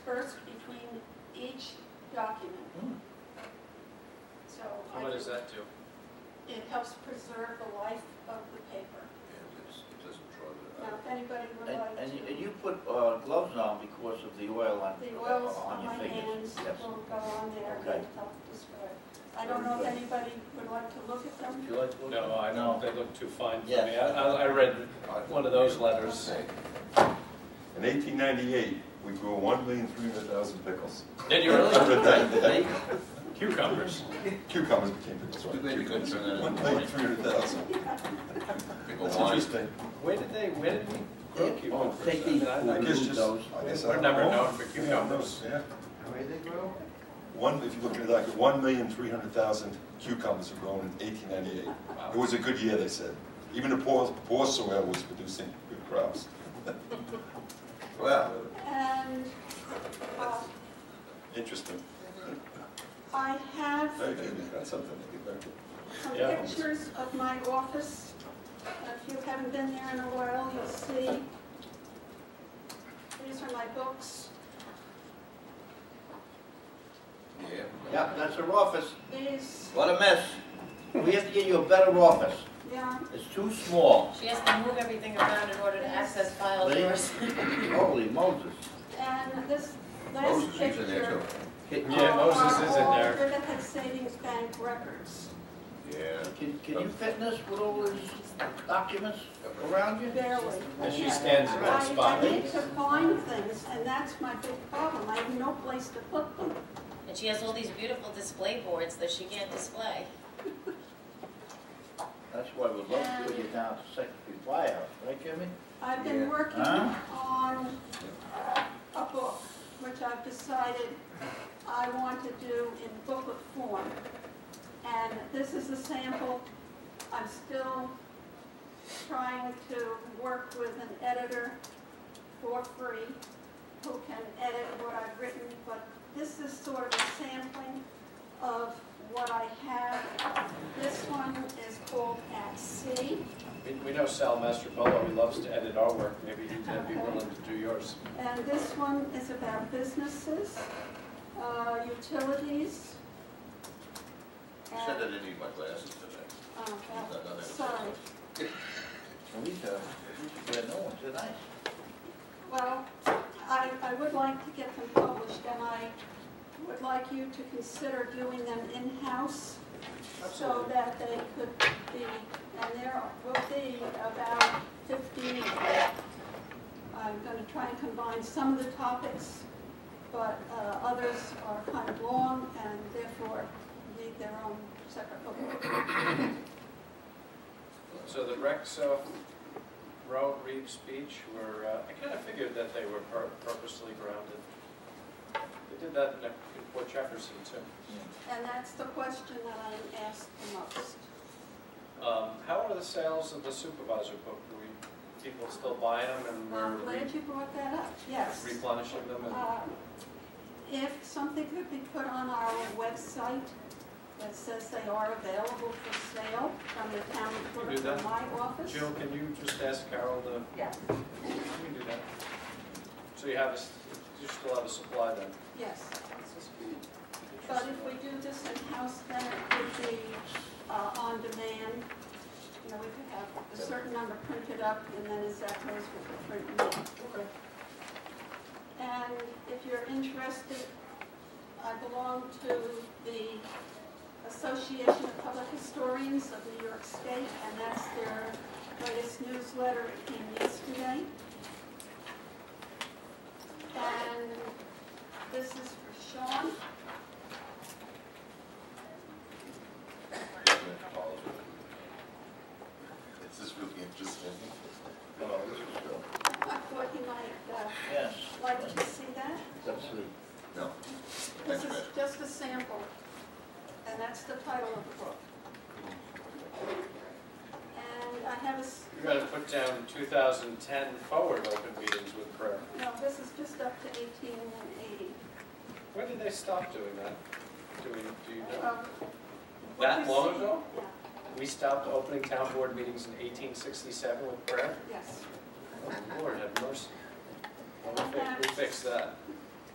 document, Hmm. so. So I What can- does that do? It helps preserve the life of the paper. And it's, it doesn't draw the, Now, if anybody would And, like and you- and to, you put uh, gloves on because of the oil on, the oils uh, on on your my hands fingers. Yes. will go on there Okay. and help describe. I don't know if Very anybody would like to look at Would them. you like to? look No, at- I don't, they look too fine for me. Yes. I, I read one of those letters. In eighteen ninety-eight, we grew one million three hundred thousand pickles. Did you really? From the day that They- Cucumbers. Cucumbers became pickles, right? Too bad you couldn't turn that One into million wine. three hundred thousand. Pickle That's wine. interesting. Where did they, where did we grow they- oh, cucumbers? Take I mean, these, I- I remove guess just, those. I guess I We're don't never know. known for Who cucumbers. knows, Yeah. How many they grow? One, if you look at it like, one million three hundred thousand cucumbers were grown in eighteen ninety-eight. It was a good year, they said. Even the poor, poor soil was producing good crops. Wow. And uh, Interesting. I have Very good, that's something to get back to. some Yeah. pictures of my office. If you haven't been there in a while, you'll see. These are my books. Yeah. Yep, that's our office. These, What a mess. We have to get you a better office. yeah, It's too small. She has to move everything around in order to access files. Lady? yours. Holy Moses. and this last Moses is in there picture. too. Can, Yeah, Moses is in there. Are all Riverhead Savings Bank records. Yeah. can can you fit this with all these documents around you? Barely. And she stands in that I- spot. I need to find things, and that's my big problem, I have no place to put them. And she has all these beautiful display boards that she can't display. That's why we'd love to put you down to Secretary Firehouse, right, Jimmy? I've been Yeah. working Huh? on a book, which I've decided I want to do in booklet form. And this is a sample, I'm still trying to work with an editor for free who can edit what I've written, but this is sort of a sampling of what I have. This one is called At Sea. We, we know Sal Mastrobolo, he loves to edit our work, maybe he'd be willing to do yours. And this one is about businesses, uh, utilities. Said I and- didn't need my glasses today. oh, Not- not well, that- Sorry, And we, uh, we should get no one tonight. well, I, I would like to get them published, and I would like you to consider doing them in-house so that they could be, and there will be about 15. I'm going to try and combine some of the topics, but uh, others are kind of long and therefore need their own separate book. So the Rexo, Roe, Reeves Beach were, uh, I kind of figured that they were pur- purposely grounded. They did that in in Port Jefferson too. And that's the question that I'm asked the most. Um, How are the sales of the supervisor book? Do we, people still buying them and Well, I'm we're glad re- you brought that up, yes. replenishing them? and- Uh, If something could be put on our website that says they are available for sale from the town You clerk do that? from my office. Jill, can you just ask Carol to, Yeah, can we do that? So you have, a s- you still have a supply then? yes. But if we do this in-house, then it could be uh, on demand. You know, we could have a certain number printed up, and then as that goes, we could print more. Okay. And if you're interested, I belong to the Association of Public Historians of New York State, and that's their latest newsletter, it came yesterday. And this is for Sean. This is really interesting. I thought you might uh, Yes. like to see that. Let's see. No. This Thanks, is Fred. just a sample, and that's the title of the book. And I have a, s- You gotta put down 2010 forward open meetings with prayer. no, this is just up to 1880. When did they stop doing that? Do we, do you know? Um, what That you long see- ago? Yeah, We stopped opening town board meetings in 1867 with prayer? Yes. Oh, Lord have mercy. Well, we fi- We fixed that.